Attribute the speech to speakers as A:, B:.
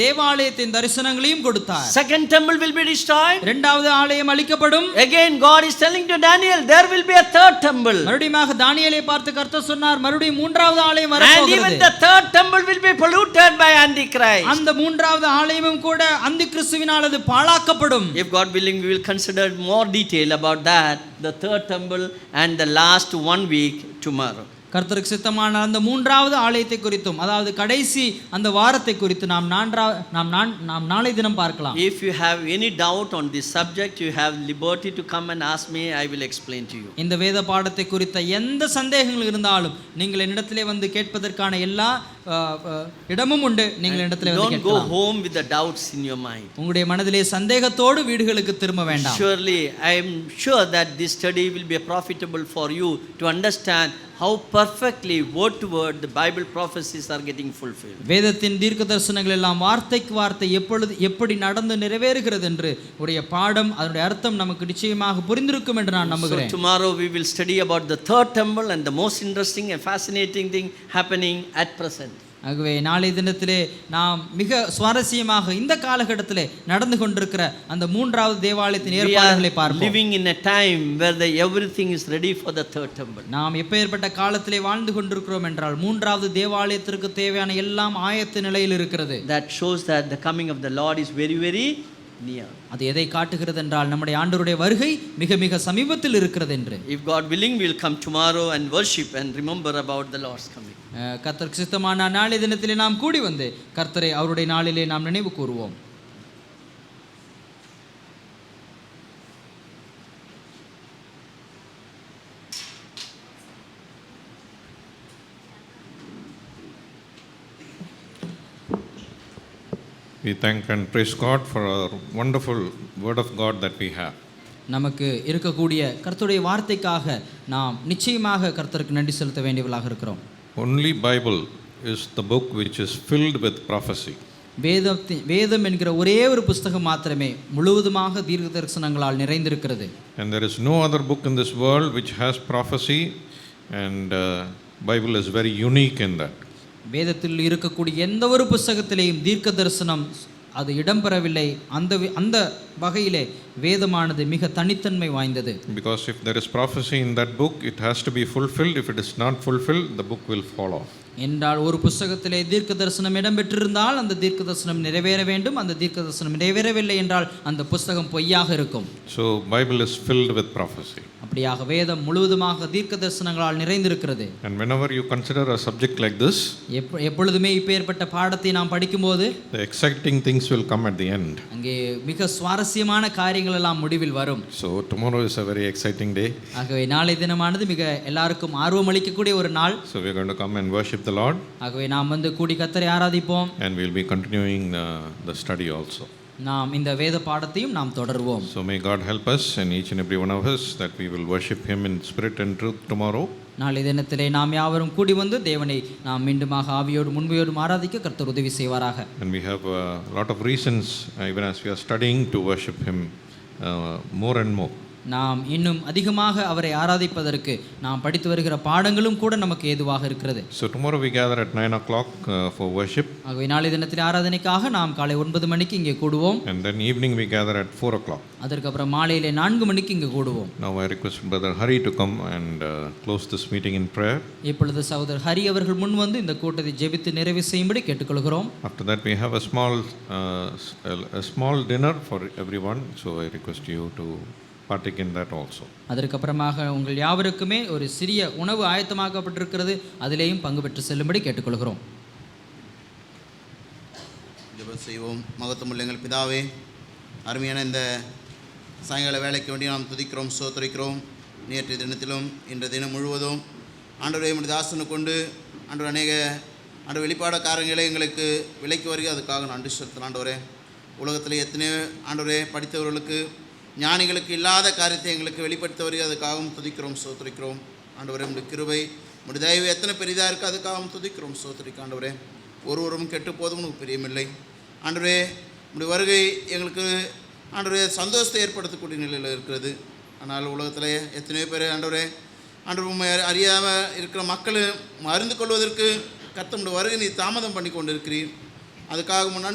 A: தேவாலயத்தின் தரிசனங்களையும் கொடுத்தார்
B: Second temple will be destroyed.
A: இரண்டாவது ஆலயம் அளிக்கப்படும்
B: Again, God is telling to Daniel, there will be a third temple.
A: மறுபடியும் தானியேலை பார்த்து கர்த்தர் சொன்னார் மறுபடியும் மூன்றாவது ஆலயம்
B: And even
A: வரப்போகிறது
B: the third temple will be polluted by Antichrist.
A: அந்த மூன்றாவது ஆலயமும் கூட அந்த கிறிஸ்துவினால் அது பாழாக்கப்படும்
B: If God willing, we will consider more detail about that, the third temple and the last one week tomorrow.
A: கர்த்தருக்கு சித்தமான அந்த மூன்றாவது ஆலயத்தை குறித்தும் அதாவது கடைசி அந்த வாரத்தை குறித்து நாம் நான்றா நாம் நான் நாம் நாளை தினம் பார்க்கலாம்
B: If you have any doubt on this subject, you have liberty to come and ask me, I will explain to you.
A: இந்த வேத பாடத்தை குறித்த எந்த சந்தேகங்கள் இருந்தாலும் நீங்கள் என்னிடத்திலே வந்து கேட்பதற்கான எல்லா அஹ், அஹ், இடமும் உண்டு நீங்கள் என்னிடத்திலே வந்து
B: Don't go
A: கேட்கலாம்
B: home with the doubts in your mind.
A: உங்களுடைய மனதிலே சந்தேகத்தோடு வீடுகளுக்கு திரும்ப வேண்டாம்
B: Surely, I am sure that this study will be profitable for you to understand how perfectly, word to word, the Bible prophecies are getting fulfilled.
A: வேதத்தின் தீர்க்க தரிசனங்கள் எல்லாம் வார்த்தைக்கு வார்த்தை எப்பொழுது எப்படி நடந்து நிறைவேறுகிறது என்று உடைய பாடம் அதனுடைய அர்த்தம் நமக்கு நிச்சயமாக புரிந்திருக்கும் என்று நான்
B: So,
A: நம்புகிறேன்
B: tomorrow we will study about the third temple and the most interesting and fascinating thing happening at present.
A: ஆகவே நாளைய தினத்திலே நாம் மிக சுவாரஸ்யமாக இந்த காலகட்டத்திலே நடந்து கொண்டிருக்கிற அந்த மூன்றாவது தேவாலயத்தின்
B: We are
A: ஏற்பாடுகளை பார்ப்போம்
B: living in a time where the, everything is ready for the third temple.
A: நாம் எப்பேற்பட்ட காலத்திலே வாழ்ந்து கொண்டிருக்கிறோம் என்றால் மூன்றாவது தேவாலயத்திற்கு தேவையான எல்லாம் ஆயத்த நிலையில் இருக்கிறது
B: That shows that the coming of the Lord is very, very near.
A: அது எதை காட்டுகிறது என்றால் நம்முடைய ஆண்டவருடைய வருகை மிக மிக சமீபத்தில் இருக்கிறது என்று
B: If God willing, we will come tomorrow and worship and remember about the Lord's coming.
A: அஹ், கர்த்தருக்கு சித்தமான நாளை தினத்திலே நாம் கூடி வந்து கர்த்தரை அவருடைய நாளிலே நாம் நினைவு கூறுவோம்
C: We thank and praise God for our wonderful word of God that we have.
A: நமக்கு இருக்கக்கூடிய கர்த்தருடைய வார்த்தைக்காக நாம் நிச்சயமாக கர்த்தருக்கு நன்றி செலுத்த வேண்டியவர்களாக இருக்கிறோம்
C: Only Bible is the book which is filled with prophecy.
A: வேதத்தின் வேதம் என்கிற ஒரே ஒரு புஸ்தகம் மாத்திரமே முழுவதுமாக தீர்க்க தரிசனங்களால் நிறைந்திருக்கிறது
C: And there is no other book in this world which has prophecy and uh, Bible is very unique in that.
A: வேதத்தில் இருக்கக்கூடிய எந்த ஒரு புஸ்தகத்திலேயும் தீர்க்க தரிசனம் அது இடம்பெறவில்லை அந்த வி- அந்த வகையிலே வேதமானது மிக தனித்தன்மை வாய்ந்தது
C: Because if there is prophecy in that book, it has to be fulfilled. If it is not fulfilled, the book will fall off.
A: என்றால் ஒரு புஸ்தகத்திலே தீர்க்க தரிசனம் இடம்பெற்றிருந்தால் அந்த தீர்க்க தரிசனம் நிறைவேற வேண்டும் அந்த தீர்க்க தரிசனம் நிறைவேறவில்லை என்றால் அந்த புஸ்தகம் பொய்யாக இருக்கும்
C: So Bible is filled with prophecy.
A: அப்படியாக வேதம் முழுவதுமாக தீர்க்க தரிசனங்களால் நிறைந்திருக்கிறது
C: And whenever you consider a subject like this,
A: எப்ப எப்பொழுதுமே இப்பேற்பட்ட பாடத்தை நாம் படிக்கும்போது
C: the exciting things will come at the end.
A: அங்கே மிக சுவாரஸ்யமான காரியங்கள் எல்லாம் முடிவில் வரும்
C: So tomorrow is a very exciting day.
A: ஆகவே நாளை தினமானது மிக எல்லாருக்கும் ஆர்வம் அளிக்கக்கூடிய ஒரு நாள்
C: So we're going to come and worship the Lord,
A: ஆகவே நாம் வந்து கூடி கத்தரை ஆராதிப்போம்
C: and we'll be continuing uh, the study also.
A: நாம் இந்த வேத பாடத்தையும் நாம் தொடர்வோம்
C: So may God help us and each and every one of us that we will worship Him in spirit and truth tomorrow.
A: நாளை தினத்திலே நாம் யாவரும் கூடி வந்து தேவனை நாம் மீண்டுமாக ஆவியோடும் உண்மையோடும் ஆராதிக்க கர்த்தர் உதவி செய்வாராக
C: And we have a lot of reasons, uh, even as we are studying, to worship Him uh, more and more.
A: நாம் இன்னும் அதிகமாக அவரை ஆராதிப்பதற்கு நாம் படித்து வருகிற பாடங்களும் கூட நமக்கு ஏதுவாக இருக்கிறது
C: So tomorrow we gather at 9 o'clock uh, for worship,
A: ஆகவே நாளை தினத்தில் ஆராதனைக்காக நாம் காலை ஒன்பது மணிக்கு இங்கே கூடுவோம்
C: and then evening we gather at 4 o'clock.
A: அதற்கப்புறம் மாலையிலே நான்கு மணிக்கு இங்கே கூடுவோம்
C: Now I request Brother Hari to come and uh, close this meeting in prayer.
A: இப்பொழுது சகோதரர் ஹரி அவர்கள் முன் வந்து இந்த கூட்டத்தை ஜெபித்து நிறைவு செய்யும்படி கேட்டுக்கொள்கிறோம்
C: After that, we have a small, uh, s- a a small dinner for everyone, so I request you to partake in that also.
A: அதற்கப்புறமாக உங்கள் யாவருக்குமே ஒரு சிறிய உணவு ஆயத்தமாக்கப்பட்டிருக்கிறது அதிலேயும் பங்கு பெற்று செல்லும்படி கேட்டுக்கொள்கிறோம்
D: ஜெபம் செய்வோம் மகத்துவமுள்ள எங்கள் பிதாவே அருமையான இந்த சாயங்கால வேலைக்கு வேண்டி நாம் துதிக்கிறோம் சோத்தரிக்கிறோம் நேற்றைய தினத்திலும் இன்றைய தினம் முழுவதும் ஆண்டவரை உம்முடைய தாசனை கொண்டு ஆண்டவர் அநேக ஆண்டு வெளிப்பாட காரியங்களை எங்களுக்கு விலைக்கு வருகிறது அதுக்காக நன்றி செலுத்தின ஆண்டவரே உலகத்தில் எத்தனையோ ஆண்டவரே படித்தவர்களுக்கு ஞானிகளுக்கு இல்லாத காரியத்தை எங்களுக்கு வெளிப்படுத்த வருகிறது அதுக்காகவும் துதிக்கிறோம் சோத்தரிக்கிறோம் ஆண்டவரே உடைய கிருபை உடைய தயவு எத்தனை பெரிதாக இருக்குது அதுக்காகவும் துதிக்கிறோம் சோத்தரிக்க ஆண்டவரே ஒருவரும் கெட்டு போதும் உனக்கு பிரியமில்லை ஆண்டவரே உடைய வருகை எங்களுக்கு ஆண்டவரே சந்தோஷத்தை ஏற்படுத்தக்கூடிய நிலையில் இருக்கிறது ஆனால் உலகத்தில் எத்தனையோ பேர் ஆண்டவரே ஆண்டவர் உண்மை அறியாமல் இருக்கிற மக்கள் மருந்து கொள்வதற்கு கத்தமுடைய வருகை நீ தாமதம் பண்ணி கொண்டிருக்கிறீர் அதுக்காக முன்னாடி